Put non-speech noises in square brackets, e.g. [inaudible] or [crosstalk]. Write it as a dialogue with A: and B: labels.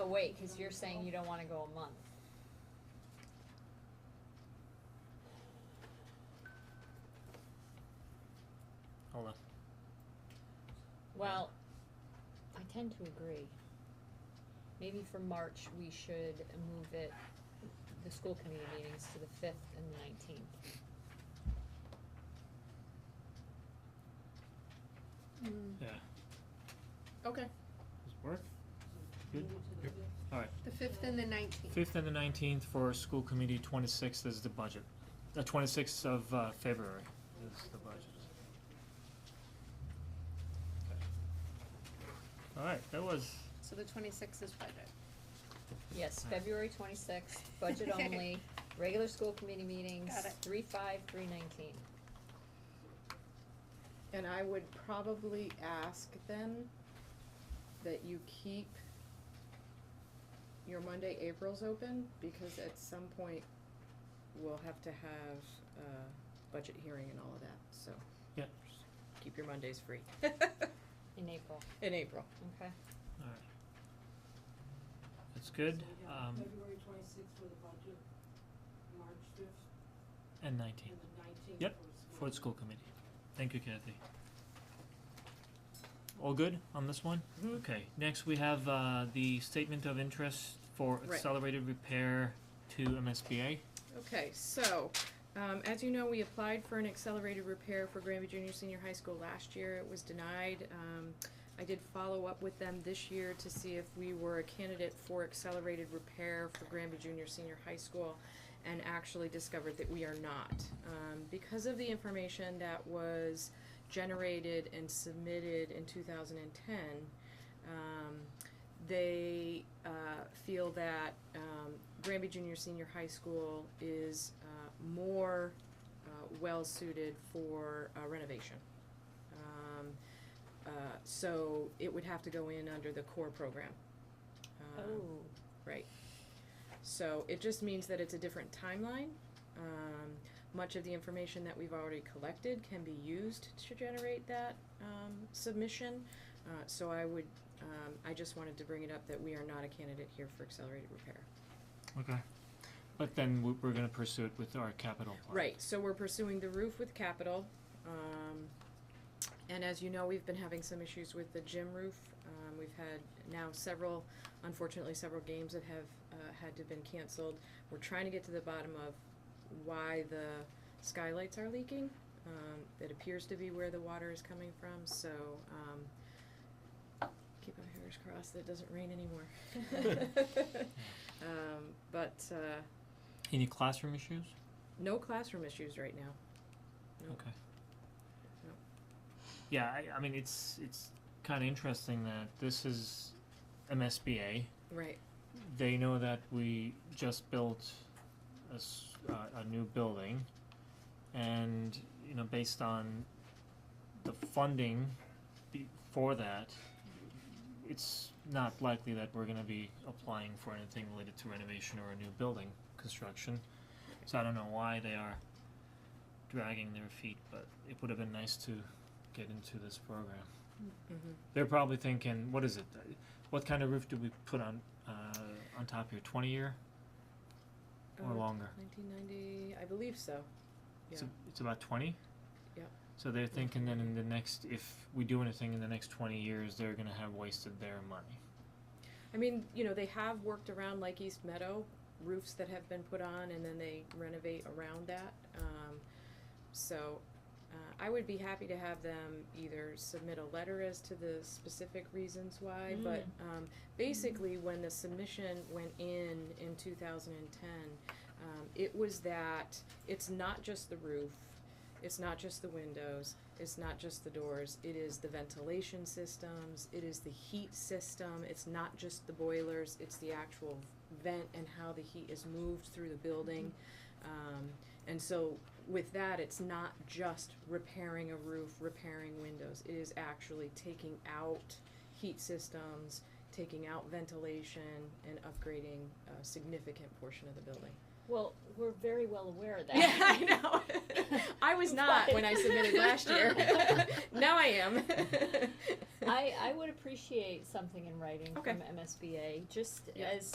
A: wait, cause you're saying you don't wanna go a month.
B: Hold on.
A: Well, I tend to agree. Maybe for March, we should move it, the school committee meetings to the fifth and the nineteenth.
C: Mm.
B: Yeah.
C: Okay,
B: Does it work? Good? Alright.
C: the fifth and the nineteenth.
B: Fifth and the nineteenth for school committee, twenty-sixth is the budget. The twenty-sixth of uh February is the budget. Okay. Alright, that was,
C: So the twenty-sixth is budget.
A: Yes,
B: Alright.
A: February twenty-sixth,
C: [laughs]
A: budget only, regular school committee meetings,
C: Got it.
A: three five, three nineteen.
D: And I would probably ask then that you keep your Monday, April's open, because at some point we'll have to have a budget hearing and all of that, so.
B: Yeah.
D: just Keep your Mondays free [laughs]
A: in April,
D: in April.
A: okay?
B: alright. That's good, um,
E: February twenty-sixth for the budget, March fifth,
B: and nineteenth
E: and the nineteenth
B: Yep,
E: for
B: for the school committee. Thank you, Kathy. All good on this one?
D: Mhm.
B: Okay, next we have uh the statement of interest for
D: Right.
B: accelerated repair to MSBA.
D: Okay, so, um, as you know, we applied for an accelerated repair for Granby Junior Senior High School last year. It was denied. Um, I did follow up with them this year to see if we were a candidate for accelerated repair for Granby Junior Senior High School and actually discovered that we are not. Um, because of the information that was generated and submitted in two thousand and ten, um, they uh, feel that um, Granby Junior Senior High School is uh, more uh, well suited for uh, renovation. Um, uh, so it would have to go in under the core program. Um,
A: Oh.
D: Right. So it just means that it's a different timeline. Um, much of the information that we've already collected can be used to generate that um, submission. Uh, so I would, um, I just wanted to bring it up that we are not a candidate here for accelerated repair.
B: Okay. But then we- we're gonna pursue it with our capital plan.
D: Right, so we're pursuing the roof with capital. Um, and as you know, we've been having some issues with the gym roof. Um, we've had now several, unfortunately, several games that have, uh, had to been canceled. We're trying to get to the bottom of why the skylights are leaking. Um, that appears to be where the water is coming from, so, um, keep our fingers crossed that it doesn't rain anymore. [laughs] Um, but, uh,
B: Any classroom issues?
D: no classroom issues right now. No.
B: Okay.
D: No.
B: Yeah, I I mean, it's it's kinda interesting that this is MSBA.
D: Right,
B: They know that we just built a s- uh, a new building and, you know, based on the funding be- for that, it's not likely that we're gonna be applying for anything related to renovation or a new building construction. So I don't know why they are dragging their feet, but it would have been nice to get into this program.
D: mhm.
B: They're probably thinking, what is it? What kind of roof do we put on uh on top here? Twenty year or
D: Uh,
B: longer?
D: Nineteen ninety, I believe so.
B: It's
D: yeah.
B: a- it's about twenty?
D: Yeah.
B: So they're thinking that in the next if we do anything in the next twenty years they're gonna have wasted their money.
D: I mean, you know, they have worked around like East Meadow, roofs that have been put on and then they renovate around that. Um, so, uh, I would be happy to have them either submit a letter as to the specific reasons why, but, um, basically, when the submission went in in two thousand and ten, um, it was that it's not just the roof, it's not just the windows, it's not just the doors, it is the ventilation systems, it is the heat system, it's not just the boilers, it's the actual vent and how the heat is moved through the building. Um, and so with that, it's not just repairing a roof, repairing windows, it is actually taking out heat systems, taking out ventilation and upgrading a significant portion of the building.
A: Well, we're very well aware
D: [laughs]
A: of that.
D: Yeah, I know. I was not when I submitted last year. now I am.
A: I, I would appreciate something in writing
D: Okay.
A: from MSBA, just
D: Yeah.
A: as